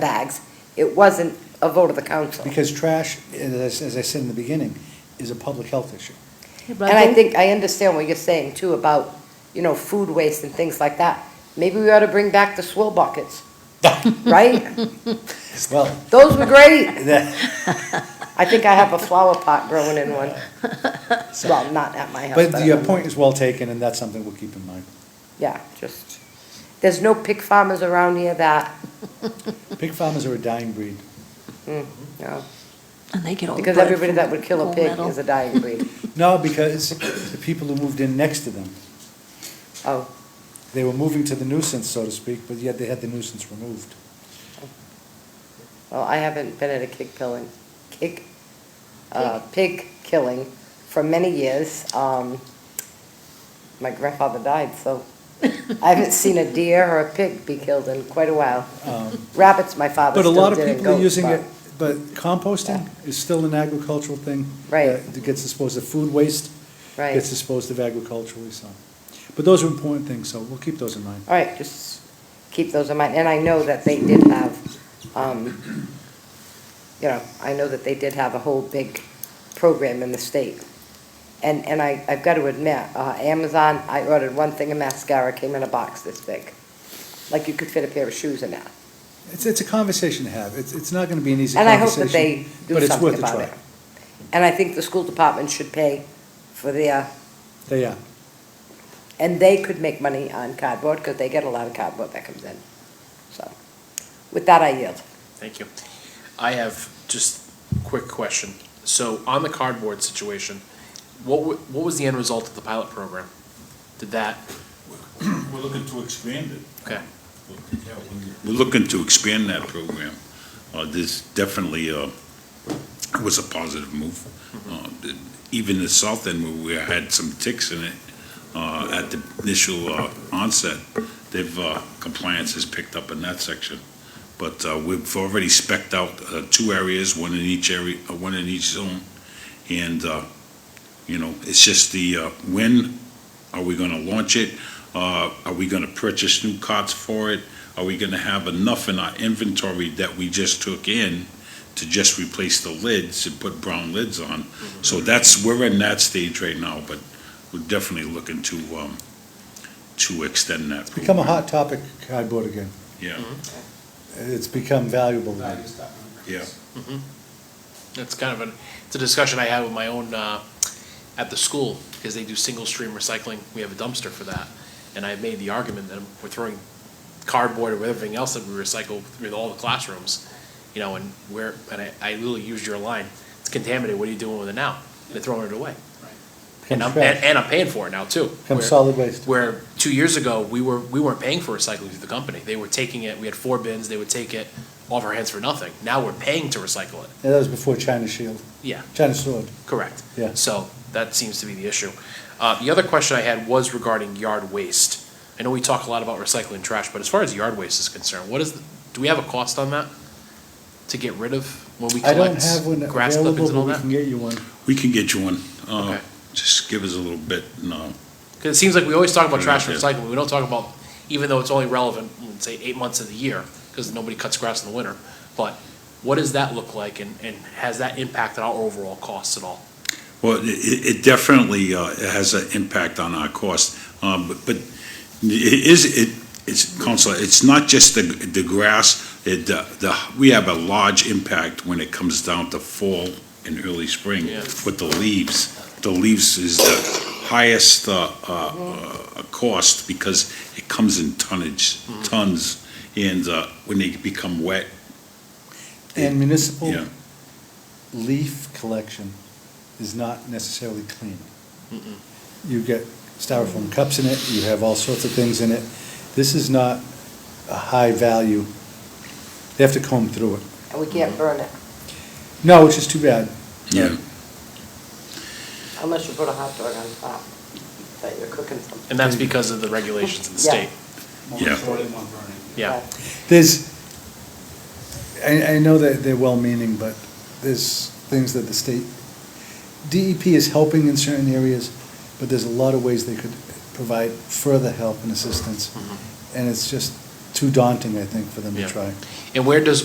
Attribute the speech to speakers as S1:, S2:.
S1: bags. It wasn't a vote of the council.
S2: Because trash, as, as I said in the beginning, is a public health issue.
S1: And I think, I understand what you're saying too about, you know, food waste and things like that. Maybe we ought to bring back the swill buckets, right?
S2: Well,
S1: Those were great.
S2: that,
S1: I think I have a flower pot growing in one. Well, not at my house,
S2: but
S1: but,
S2: your
S1: um,
S2: point is well taken, and that's something we'll keep in mind.
S1: yeah, just, there's no pig farmers around here that,
S2: Pig farmers are a dying breed.
S1: mm, no,
S3: And they get all the
S1: because
S3: blood
S1: everybody
S3: from
S1: that would kill a
S3: all
S1: pig
S3: metal.
S1: is a dying breed.
S2: No, because the people who moved in next to them,
S1: Oh,
S2: they were moving to the nuisance, so to speak, but yet they had the nuisance removed.
S1: well, I haven't been at a kick killing, kick, uh, pig killing for many years. Um, my grandfather died, so I haven't seen a deer or a pig be killed in quite a while.
S2: Um,
S1: Rabbits, my father
S2: But a
S1: still
S2: lot of
S1: did and
S2: people are
S1: goats,
S2: using
S1: but-
S2: it, but composting is still an agricultural thing.
S1: Right.
S2: uh, That gets disposed of food waste.
S1: Right.
S2: Gets disposed of agriculturally, so. But those are important things, so we'll keep those in mind.
S1: All right, just keep those in mind, and I know that they did have, um, you know, I know that they did have a whole big program in the state. And, and I, I've got to admit, uh, Amazon, I ordered one thing of mascara, came in a box this big. Like you could fit a pair of shoes in that.
S2: It's, it's a conversation to have. It's, it's not gonna be an easy
S1: And I hope
S2: conversation.
S1: that they do
S2: but it's
S1: something
S2: worth a
S1: about
S2: try.
S1: it. And I think the school department should pay for their,
S2: They are.
S1: and they could make money on cardboard, because they get a lot of cardboard that comes in. So, with that, I yield.
S4: Thank you. I have just a quick question. So on the cardboard situation, what, wa- what was the end result of the pilot program? Did that,
S5: We're looking to expand it.
S4: okay,
S5: We're looking to expand that program. Uh, This definitely uh, was a positive move. Uh, the- Even the south end, where we had some ticks in it uh, at the initial uh, onset, they've, uh, compliance has picked up in that section. But uh, we've already specked out uh, two areas, one in each area, uh, one in each zone. And, uh, you know, it's just the, uh, when are we going to launch it? Uh, Are we going to purchase new cots for it? Are we gonna have enough in our inventory that we just took in to just replace the lids and put brown lids on? So that's, we're in that stage right now, but we're definitely looking to, um, to extend that.
S2: It's become a
S5: program.
S2: hot topic, cardboard again.
S5: Yeah,
S2: It's become valuable again.
S5: yeah.
S4: that's kind of an, it's a discussion I had with my own, uh, at the school, because they do single stream recycling. We have a dumpster for that. And I made the argument that we're throwing cardboard or everything else that we recycle through all the classrooms, you know, and where, and I, I literally used your line, it's contaminated, what are you doing with it now? They're throwing it away. And I'm,
S2: Becomes
S4: and,
S2: trash,
S4: and I'm paying for it now too.
S2: becomes
S4: Where-
S2: solid waste.
S4: Where two years ago, we were, we weren't paying for recycling through the company. They were taking it, we had four bins, they would take it off our hands for nothing. Now we're paying to recycle it.
S2: Yeah, That was before China Shield,
S4: Yeah,
S2: China Sword.
S4: correct.
S2: Yeah.
S4: So that seems to be the issue. Uh, the other question I had was regarding yard waste. I know we talk a lot about recycling trash, but as far as yard waste is concerned, what is, the- do we have a cost on that? To get rid of when we
S2: I don't
S4: collect
S2: have one
S4: grass clippings
S2: available,
S4: and all
S2: but we can
S4: that?
S2: get you one.
S5: We can get you one. Uh,
S4: Okay.
S5: Just give us a little bit, uh, no.
S4: Because it seems like we always talk about
S5: Yeah,
S4: trash and
S5: yeah.
S4: recycling, we don't talk about, even though it's only relevant, mm, say, eight months of the year, because nobody cuts grass in the winter, but what does that look like, and, and has that impacted our overall costs at all?
S5: Well, it- it it definitely uh, has an impact on our cost, Um, but but it is, it it's, Counselor, it's not just the the grass, It uh, the we have a large impact when it comes down to fall and early spring
S4: Yeah.
S5: with the leaves. The leaves is the highest uh, uh, uh, cost because it comes in tonnage,
S4: Mm.
S5: tons, and uh, when they become wet,
S2: And municipal
S5: yeah.
S2: leaf collection is not necessarily clean. You get styrofoam cups in it, you have all sorts of things in it. This is not a high value. They have to comb through it.
S1: And we can't burn it
S2: No, which is too bad.
S5: Yeah.
S1: unless you put a hot dog on top that you're cooking something.
S4: And that's because of the regulations in the state,
S5: Yeah.
S4: yeah.
S2: There's, I, I know that they're well-meaning, but there's things that the state, DEP is helping in certain areas, but there's a lot of ways they could provide further help and assistance. And it's just too daunting, I think, for them to
S4: Yeah.
S2: try.
S4: And where does,